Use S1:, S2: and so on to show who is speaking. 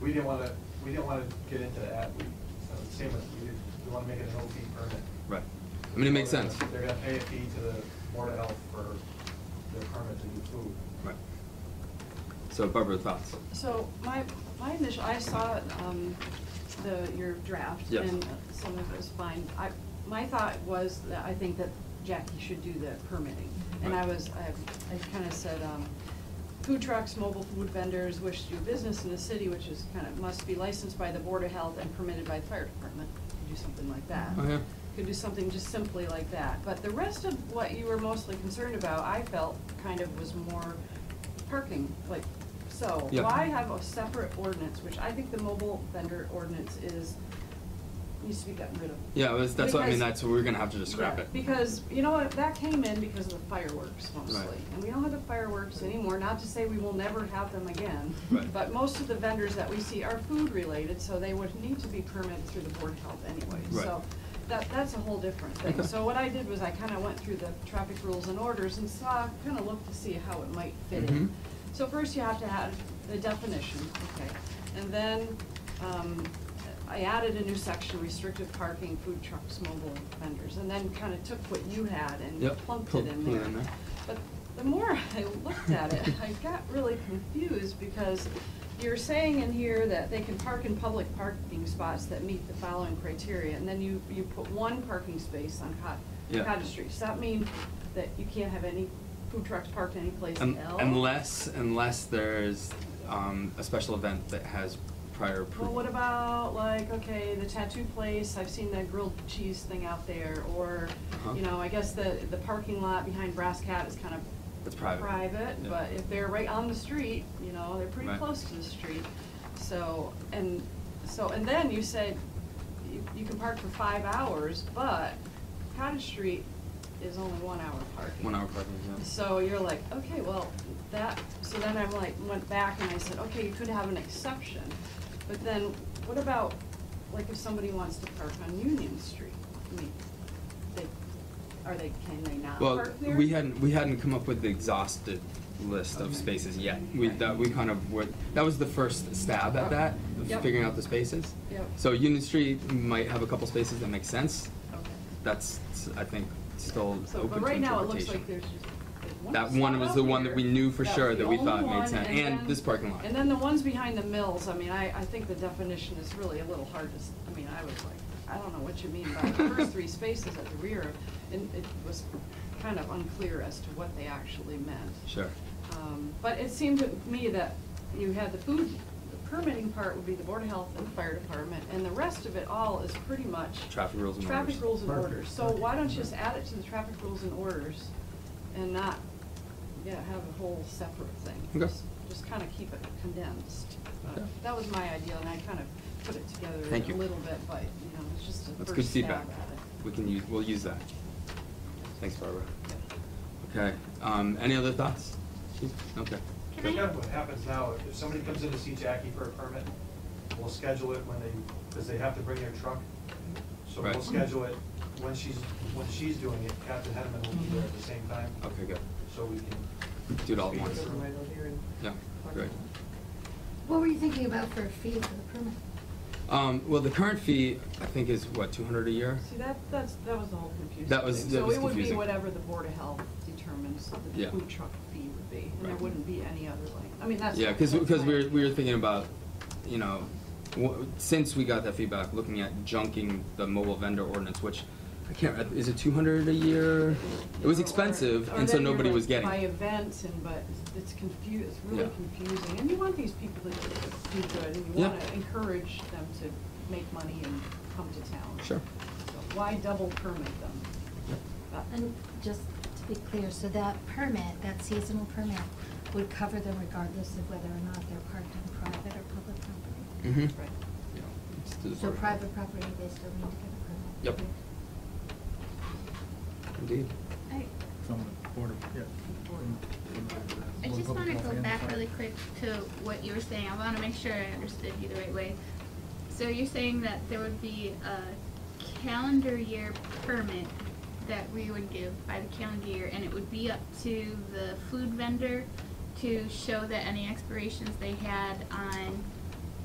S1: we didn't wanna, we didn't wanna get into that, we, so it's same with, we, we wanna make it an OP permit.
S2: Right. I mean, it makes sense.
S1: They're gonna pay a fee to the Board of Health for their permit to do food.
S2: Right. So Barbara, thoughts?
S3: So my, my initial, I saw um, the, your draft.
S2: Yes.
S3: And some of it was fine. I, my thought was that I think that Jackie should do the permitting. And I
S2: Right.
S3: was, I, I kind of said, um, food trucks, mobile food vendors wish to do business in the city, which is kind of, must be licensed by the Board of Health and permitted by the fire department. Could do something like that.
S2: Oh, yeah.
S3: Could do something just simply like that. But the rest of what you were mostly concerned about, I felt kind of was more parking, like, so,
S2: Yeah.
S3: why have a separate ordinance, which I think the mobile vendor ordinance is, needs to be gotten rid of.
S2: Yeah, it was- that's what, I mean,
S3: Because-
S2: that's, we're gonna have to just scrap
S3: Yeah,
S2: it.
S3: Because, you know what, that came in because of the fireworks
S2: Right.
S3: mostly, and we don't have the fireworks anymore, not to say we will never have them again.
S2: Right.
S3: But most of the vendors that we see are food related, so they would need to be permitted through the Board of Health anyway,
S2: Right.
S3: so that, that's a whole different thing.
S2: Okay.
S3: So what I did was I kinda went through the traffic rules and orders and saw, kinda looked to see how it might fit
S2: Mhm.
S3: in. So first you have to have the definition, okay, and then, um, I added a new section, restricted parking, food trucks, mobile vendors, and then kinda took what you had and
S2: Yep,
S3: plunked
S2: pulled-
S3: it in
S2: pulled it
S3: there.
S2: in there.
S3: But the more I looked at it, I got really confused because you're saying in here that they can park in public parking spots that meet the following criteria, and then you, you put one parking space on
S2: Yeah.
S3: Cot- Cottage Street. Does that mean that you can't have any food trucks parked anyplace
S2: Um,
S3: else?
S2: Unless, unless there's, um, a special event that has prior approval.
S3: Well, what about like, okay, the tattoo place, I've seen that grilled cheese thing out there, or,
S2: Uh-huh.
S3: you know, I guess the, the parking lot behind Brass Cat is kind of
S2: It's private. Yeah.
S3: but if they're right on the street, you know, they're pretty
S2: Right.
S3: close to the street, so, and, so, and then you said you, you can park for five hours, but Cottage Street is only one hour parking.
S2: One hour parking, yeah.
S3: So you're like, okay, well, that, so then I'm like, went back and I said, okay, you could have an exception. But then, what about, like, if somebody wants to park on Union Street? I mean, they, are they, can they not
S2: Well,
S3: Uh, park there?
S2: we hadn't, we hadn't come up with the exhausted list of
S3: Okay.
S2: spaces yet. We,
S3: Right.
S2: that, we kind of were, that was the first stab at
S3: Okay.
S2: that, of
S3: Yep.
S2: figuring out the spaces.
S3: Yep.
S2: So Union Street might have a couple spaces that make sense.
S3: Okay.
S2: That's, s- I think, still open to
S3: So, but right now, it looks like
S2: interpretation.
S3: there's just. there's
S2: That
S3: spot
S2: one was
S3: out
S2: the one that
S3: there.
S2: we knew for
S3: That
S2: sure
S3: was
S2: that
S3: the
S2: we thought
S3: only
S2: made
S3: one,
S2: sense, and
S3: then-
S2: this parking lot.
S3: And then the ones behind the mills, I mean, I, I think the definition is really a little hard to, s- I mean, I was like, I don't know what you mean by the first three spaces at the rear, and it was kind of unclear as to what they actually meant.
S2: Sure.
S3: Um, But it seemed to me that you had the food, the permitting part would be the Board of Health and the Fire Department, and the rest of it all is pretty much.
S2: Traffic rules and orders.
S3: Traffic rules and
S1: Perfect.
S3: orders, so why don't you just add it to the traffic rules and orders and not, yeah, have a whole separate thing?
S2: Okay.
S3: Just- Just kind of keep it condensed. Uh,
S2: Okay.
S3: That was my idea, and I kind of put it together
S2: Thank you.
S3: a little bit, but, you know, it's just a
S2: That's good
S3: first stab at
S2: feedback.
S3: it.
S2: We can use, we'll use that. Thanks, Barbara. Okay, um, any other thoughts? Okay.
S1: But then what happens now, if somebody comes in to see Jackie for a permit, we'll schedule it when they, because they have to bring their truck. So we'll
S2: Right.
S1: schedule it when she's, when she's doing it, Captain Henneman will be there at the same time,
S2: Okay, good.
S1: so we can.
S2: Do it all at
S1: Speak
S2: once.
S1: it through.
S2: Yeah, great.
S4: What were you thinking about for a fee for the permit?
S2: Um, well, the current fee, I think, is what, two hundred a year?
S3: See, that, that's, that was the whole confusing thing.
S2: That was- that was
S3: So it would be
S2: confusing.
S3: whatever the Board of Health determines that
S2: Yeah.
S3: the food truck fee would be, and there
S2: Right.
S3: wouldn't be any other like, I mean, that's.
S2: Yeah, cause,
S3: that's
S2: 'cause
S3: my
S2: we were, we were
S3: idea.
S2: thinking about, you know, wh- since we got that feedback, looking at junking the mobile vendor ordinance, which, I can't, is it two hundred a year? It was
S3: Or-
S2: expensive,
S3: or
S2: and so
S3: then you're
S2: nobody
S3: like
S2: was getting
S3: By
S2: it.
S3: events and, but it's- it's confu, it's really
S2: Yeah.
S3: confusing, and you want these people to do good, and you
S2: Yeah.
S3: wanna encourage them to make money and come to town.
S2: Sure.
S3: So Why double permit them? That-
S4: And just to be clear, so that permit, that seasonal permit, would cover them regardless of whether or not they're parked on private or public property?
S2: Mm-hmm.
S3: Right.
S4: So private property, they still need to get a
S2: Yep.
S4: permit?
S2: Indeed.
S5: I,
S6: From the Board of, yeah.
S5: I just
S6: Board of
S5: wanna
S6: Health
S5: go
S6: and
S5: back
S6: Fire.
S5: really quick to what you were saying, I wanna make sure I understood you the right way. So you're saying that there would be a calendar year permit that we would give by the calendar year, and it would be up to the food vendor to show that any expirations they had on